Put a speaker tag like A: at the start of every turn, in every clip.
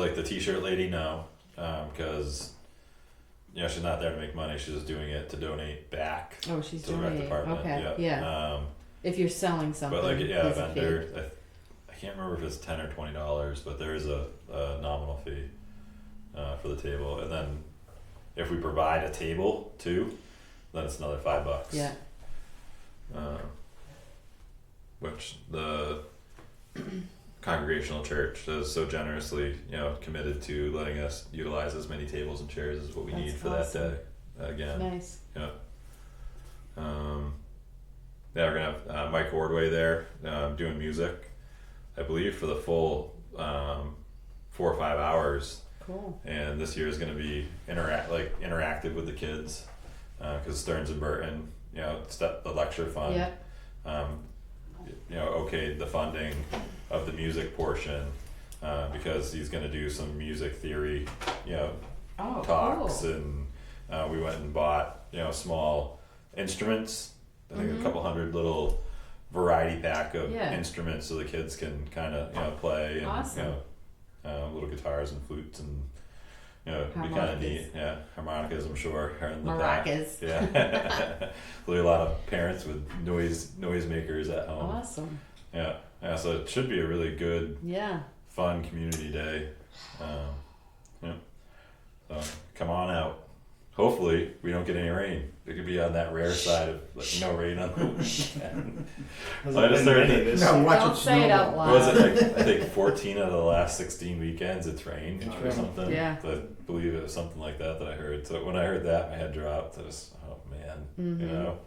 A: like the T-shirt lady no, because you know she's not there to make money. She's just doing it to donate back
B: Oh, she's
A: to the rec
B: donating.
A: department.
B: Okay,
A: Yep.
B: yeah.
A: Um,
B: If you're selling something,
A: but like yeah, a
B: it's a fee.
A: vendor. I, th- I can't remember if it's ten or twenty dollars, but there is a, a nominal fee uh, for the table, and then if we provide a table too, then it's another five bucks.
B: Yeah,
A: Um, which the congregational church has so generously, you know, committed to letting us utilize as many tables and chairs as what we
B: That's
A: need for
B: awesome.
A: that day. Again,
B: nice.
A: um, yeah, we're gonna have uh, Mike Ordway there um, doing music, I believe, for the full um, four or five hours.
B: Cool.
A: And this year is gonna be interact like interactive with the kids, because Stearns and Burton, you know, step the lecture fund
B: Yeah.
A: um, you know, okayed the funding of the music portion, uh, because he's gonna do some music theory, you know,
B: Oh,
A: talks,
B: cool.
A: and, uh, we went and bought, you know, small instruments. I think a
B: Mhm.
A: couple hundred little variety pack of
B: Yeah.
A: instruments so the kids can kinda, you know, play and, you
B: Awesome.
A: know, uh, little guitars and flutes and, you know, it'd be kinda
B: Harmonicas.
A: neat, yeah, harmonicas, I'm sure, are in the back.
B: Maracas.
A: Yeah, there'll be a lot of parents with noise noisemakers at home.
B: Awesome.
A: Yeah, yeah. So it should be a really good,
B: Yeah.
A: fun community day. Um, yeah. So come on out. Hopefully we don't get any rain. It could be on that rare side of like, no rain on the weekend.
C: Hasn't
A: I just
C: been
A: heard
C: many
A: it.
C: this
D: No,
C: year.
D: watch
B: Don't
D: it
B: say it out
D: snowball.
A: What was it
B: loud.
A: like? I think fourteen out of the last sixteen weekends it's rained
C: It's
A: or
C: rained.
A: something.
B: Yeah.
A: I believe it was something like that that I heard. So when I heard that, my head dropped. I just, oh man,
B: Mhm.
A: you know.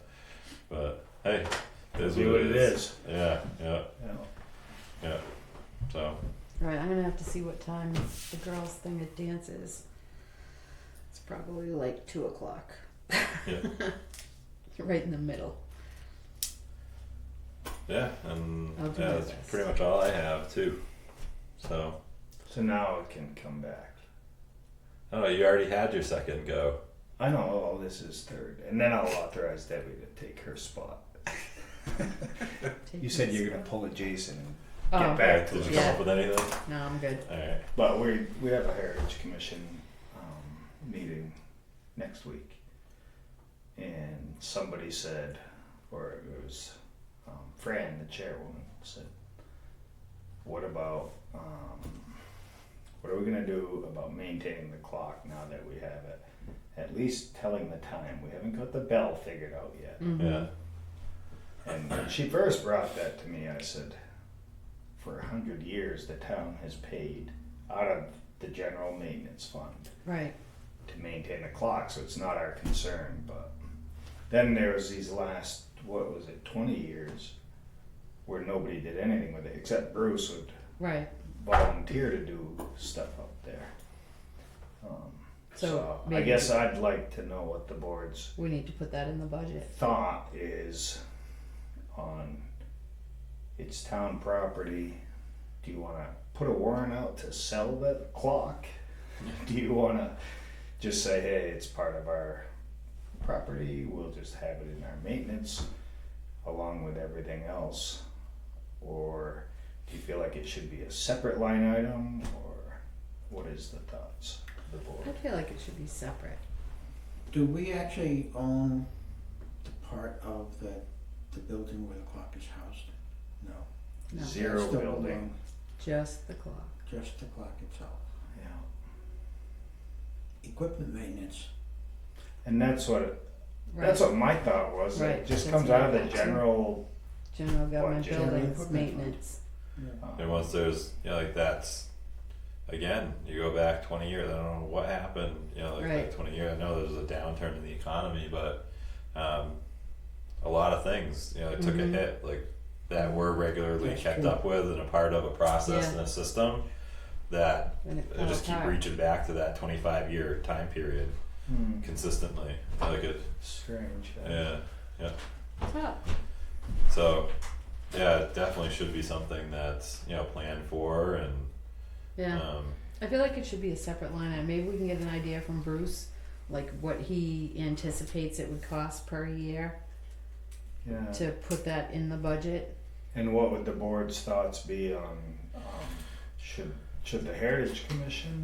A: But hey, it is
C: Be
A: what it is. Yeah, yeah,
C: Yeah.
A: yeah. So
B: All right, I'm gonna have to see what time the girls' thing at dance is. It's probably like two o'clock.
A: Yeah.
B: right in the middle.
A: yeah, and
B: I'll do
A: yeah,
B: my
A: that's
B: best.
A: pretty much all I have too. So
C: So now it can come back.
A: I don't know. oh, You already had your second go.
C: I know. Oh, this is third, and then I'll authorize Debbie to take her spot. You said you're gonna pull a Jason, and-
B: Oh,
C: get back to
A: Did you
C: it.
B: Yeah.
A: come up with anything?
B: no, I'm good.
A: All right.
C: But we we have a Heritage Commission um, meeting next week, and somebody said, or it was um, Fran, the chairwoman, said, "What about um, what are we gonna do about maintaining the clock now that we have it? At least telling the time. We haven't got the bell figured out yet."
B: Mhm.
A: Yeah.
C: And when she first brought that to me, I said, for a hundred years, the town has paid out of the general maintenance fund
B: Right.
C: to maintain the clock, so it's not our concern, but then there was these last, what was it, twenty years where nobody did anything with it, except Bruce would
B: Right.
C: volunteer to do stuff up there. Um,
B: So
C: So I
B: maybe-
C: guess I'd like to know what the board's
B: We need to put that in the budget.
C: thought is on its town property. Do you want to put a warrant out to sell the clock? Do you want to just say, hey, it's part of our property, we'll just have it in our maintenance along with everything else? Or do you feel like it should be a separate line item or what is the thoughts of the
B: I
C: board?
B: feel like it should be separate.
D: Do we actually own the part of the, the building where the clock is housed? No.
B: No,
C: Zero
D: That's the
C: building,
D: one,
B: Just the clock.
D: Just the clock itself.
C: yeah.
D: Equipment maintenance,
C: And that's what
B: Right.
C: That's what my thought was.
B: Right,
C: It just
B: that's
C: comes
B: what
C: out of
B: I
C: the
B: thought too.
C: general.
B: General government
C: General
B: buildings
D: equipment.
B: maintenance.
C: um,
A: And once there's you know, like that's again, you go back twenty years, I don't know what happened, you know, like
B: Right.
A: that twenty years. I know there's a downturn in the economy, but um a lot of things, you know, it took
B: Mhm.
A: a hit, like that we're regularly
D: That's
A: kept
D: true.
A: up with and a part of a process
B: Yeah.
A: and a system that
B: When it
A: they
B: fell
A: just keep
B: apart.
A: reaching back to that twenty five year time period
C: Hmm,
A: consistently. Like it
C: strange. uh, huh?
A: yeah.
B: Oh,
A: So yeah, it definitely should be something that's, you know, planned for and
B: yeah.
A: um
B: I feel like it should be a separate line item. Maybe we can get an idea from Bruce, like what he anticipates it would cost per year
C: Yeah.
B: to put that in the budget.
C: And what would the board's thoughts be on um, should Should the Heritage Commission